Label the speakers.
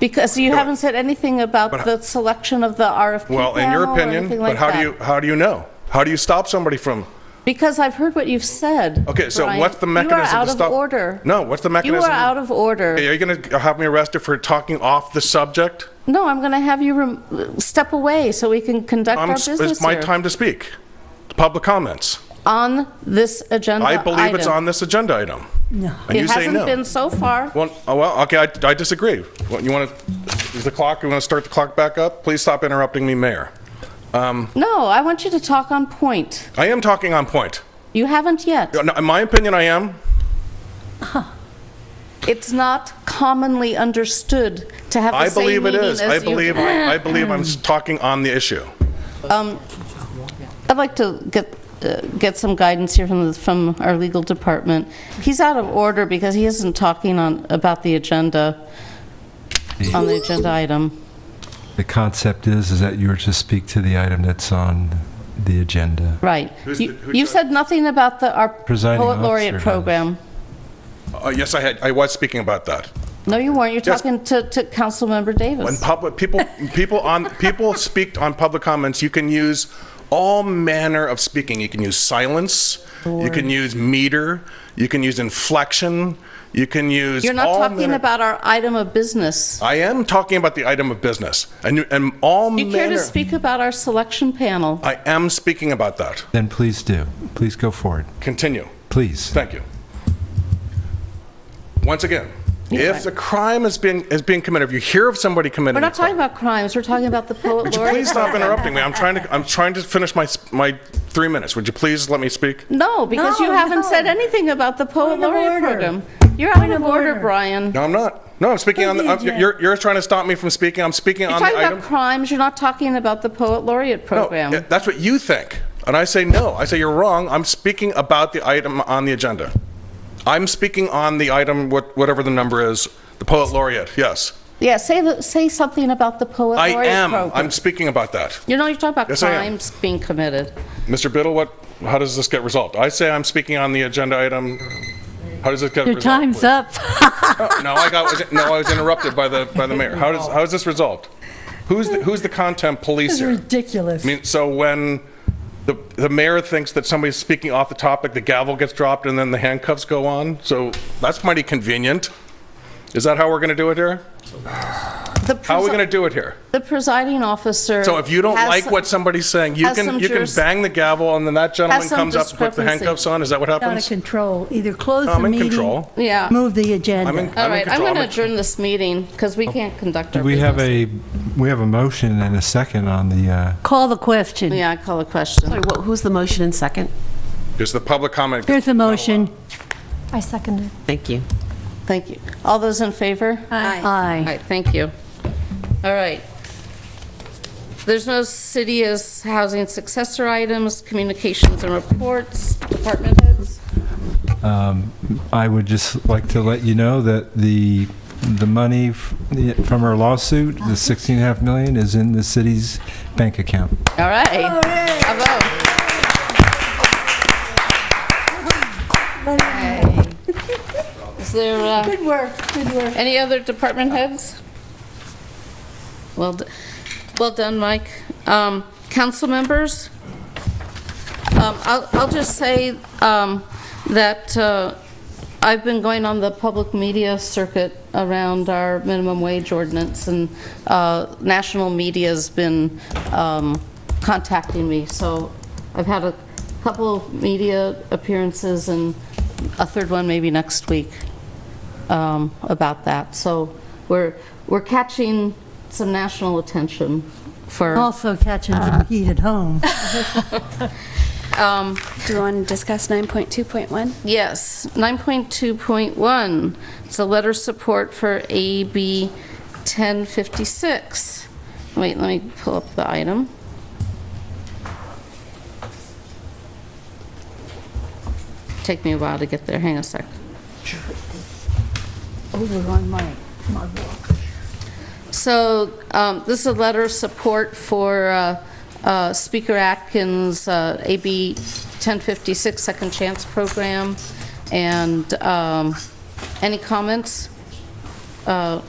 Speaker 1: Because you haven't said anything about
Speaker 2: But-
Speaker 1: the selection of the RFP
Speaker 2: Well, in your
Speaker 1: panel or
Speaker 2: opinion,
Speaker 1: anything
Speaker 2: but
Speaker 1: like
Speaker 2: how do
Speaker 1: that.
Speaker 2: you, how do you know? How do you stop somebody from,
Speaker 1: Because I've heard what you've said.
Speaker 2: okay, so
Speaker 1: Brian.
Speaker 2: what's the
Speaker 1: You
Speaker 2: mechanism to
Speaker 1: are
Speaker 2: stop?
Speaker 1: out of order.
Speaker 2: No, what's the mechanism?
Speaker 1: You are out of order.
Speaker 2: Are you going to have me arrested for talking off the subject?
Speaker 1: No, I'm going to have you rem- step away so we can conduct
Speaker 2: I'm
Speaker 1: our
Speaker 2: s-
Speaker 1: business
Speaker 2: It's my
Speaker 1: here.
Speaker 2: time to speak. Public comments.
Speaker 1: on this agenda
Speaker 2: I believe it's
Speaker 1: item.
Speaker 2: on this agenda item. No. And you
Speaker 1: It
Speaker 2: say
Speaker 1: hasn't
Speaker 2: no.
Speaker 1: been so far.
Speaker 2: Well, oh, well, okay, I I disagree. Well, You want to, is the clock, you want to start the clock back up? Please stop interrupting me, Mayor.
Speaker 1: No, I want you to talk on point.
Speaker 2: I am talking on point.
Speaker 1: You haven't yet.
Speaker 2: No, In my opinion, I am.
Speaker 1: It's not commonly understood to have
Speaker 2: I
Speaker 1: the same
Speaker 2: believe it
Speaker 1: meaning
Speaker 2: is.
Speaker 1: as you...
Speaker 2: I believe, I believe I'm s- talking on the issue.
Speaker 1: I'd like to get, uh, get some guidance here from, the- from our legal department. He's out of order because he isn't talking on, about the agenda, on the agenda item.
Speaker 3: The concept is, is that you were to speak to the item that's on the agenda.
Speaker 1: Right.
Speaker 2: Who's
Speaker 1: You
Speaker 2: the- who
Speaker 1: you
Speaker 2: said-
Speaker 1: said nothing about the, our
Speaker 3: Presiding
Speaker 1: poet laureate
Speaker 3: officer does.
Speaker 1: program.
Speaker 2: Uh, Yes, I had, I was speaking about that.
Speaker 1: No, you weren't. You're
Speaker 2: Yes.
Speaker 1: talking to, to Councilmember
Speaker 2: When
Speaker 1: Davis.
Speaker 2: public, people, people on, people speak on public comments, you can use all manner of speaking. You can use silence, you can use meter, you can use inflection, you can use
Speaker 1: You're not
Speaker 2: all
Speaker 1: talking
Speaker 2: manner-
Speaker 1: about our item of business.
Speaker 2: I am talking about the item of business and, you- and all
Speaker 1: Do you
Speaker 2: manner.
Speaker 1: care to speak about our selection panel?
Speaker 2: I am speaking about that.
Speaker 3: Then please do. Please go forward.
Speaker 2: Continue.
Speaker 3: Please.
Speaker 2: Thank you. Once again, if the crime is being, is being committed, if you hear of somebody committing
Speaker 1: We're
Speaker 2: a
Speaker 1: not talking
Speaker 2: crime.
Speaker 1: about crimes, we're talking about the poet
Speaker 2: Would you
Speaker 1: laureate.
Speaker 2: please stop
Speaker 1: program.
Speaker 2: interrupting me? I'm trying to, I'm trying to finish my, my three minutes. Would you please let me speak?
Speaker 1: No, because you
Speaker 4: No,
Speaker 1: haven't
Speaker 4: no.
Speaker 1: said anything about the poet
Speaker 4: Point of
Speaker 1: laureate
Speaker 4: order.
Speaker 1: program. You're out
Speaker 4: Point
Speaker 1: of
Speaker 4: of
Speaker 1: order,
Speaker 4: order.
Speaker 1: Brian.
Speaker 2: No, I'm not. No, I'm speaking on, the.
Speaker 4: Please,
Speaker 2: I'm-
Speaker 4: Jeff.
Speaker 2: you're, you're trying to stop me from speaking. I'm speaking
Speaker 1: You're
Speaker 2: on the
Speaker 1: talking
Speaker 2: item.
Speaker 1: about crimes, you're not talking about the poet laureate
Speaker 2: No,
Speaker 1: program.
Speaker 2: yeah, That's what you think. And I say no. I say you're wrong. I'm speaking about the item on the agenda. I'm speaking on the item, what- whatever the number is, the poet laureate, yes.
Speaker 1: Yeah, say, the- say something about the poet
Speaker 2: I
Speaker 1: laureate
Speaker 2: am,
Speaker 1: program.
Speaker 2: I'm speaking about that.
Speaker 1: You know, you're talking about
Speaker 2: Yes, I am.
Speaker 1: crimes being committed.
Speaker 2: Mr. Biddle, what, how does this get resolved? I say I'm speaking on the agenda item, how does it get
Speaker 4: Your
Speaker 2: resolved?
Speaker 4: time's
Speaker 2: please?
Speaker 4: up.
Speaker 2: No, I got, was- no, I was interrupted by the, by the mayor. How does, how is this resolved? Who's, the- who's the content police
Speaker 4: This is
Speaker 2: here?
Speaker 4: ridiculous.
Speaker 2: I mean, so when the, the mayor thinks that somebody's speaking off the topic, the gavel gets dropped and then the handcuffs go on. So that's mighty convenient. Is that how we're going to do it here?
Speaker 1: The
Speaker 2: How are we
Speaker 1: presi-
Speaker 2: going to do it here?
Speaker 1: The presiding officer.
Speaker 2: So if you don't
Speaker 1: has
Speaker 2: like
Speaker 1: some-
Speaker 2: what somebody's saying, you
Speaker 1: has some
Speaker 2: can, you can
Speaker 1: juris-
Speaker 2: bang the gavel and then that gentleman
Speaker 1: some
Speaker 2: comes up and puts the
Speaker 1: discrepancy.
Speaker 2: handcuffs on? Is that what
Speaker 4: Out of
Speaker 2: happens?
Speaker 4: control. Either close
Speaker 2: I'm
Speaker 4: the
Speaker 2: in
Speaker 4: meeting.
Speaker 2: control.
Speaker 1: Yeah.
Speaker 4: Move the agenda.
Speaker 2: I'm in-
Speaker 1: All
Speaker 2: in
Speaker 1: right, I'm
Speaker 2: control.
Speaker 1: going to
Speaker 2: in-
Speaker 1: adjourn this meeting because we can't conduct our
Speaker 3: Oh. We have
Speaker 1: business.
Speaker 3: a, we have a motion and a second on the, uh,
Speaker 4: Call the question.
Speaker 1: Yeah, I call a question.
Speaker 5: Sorry, what, who's the motion and second?
Speaker 2: Is the public comment?
Speaker 4: Here's the motion.
Speaker 6: I second it.
Speaker 5: Thank you.
Speaker 1: Thank you. All those in favor? All
Speaker 4: Aye.
Speaker 1: right, thank you. All right. There's no city as housing successor items, communications and reports, department heads.
Speaker 3: I would just like to let you know that the, the money f- from our lawsuit, the 16 and a half million, is in the city's bank account.
Speaker 1: All right. Bravo. Is there uh,
Speaker 4: Good work, good work.
Speaker 1: any other department heads? Well, d- well done, Mike. Um, Council members? Um, I'll I'll just say um, that uh, I've been going on the public media circuit around our minimum wage ordinance, and uh, national media's been um, contacting me, so I've had a couple of media appearances and a third one maybe next week um, about that. So we're we're catching some national attention for...
Speaker 4: Also catching some heat at home.
Speaker 7: Do you want to discuss 9.2.1?
Speaker 1: Yes, 9.2.1, it's a letter support for AB 1056. Wait, let me pull up the item. Take me a while to get there, hang a sec. So um, this is a letter of support for uh, uh, Speaker Atkins' uh, AB 1056 Second Chance Program. And um, any comments? Uh,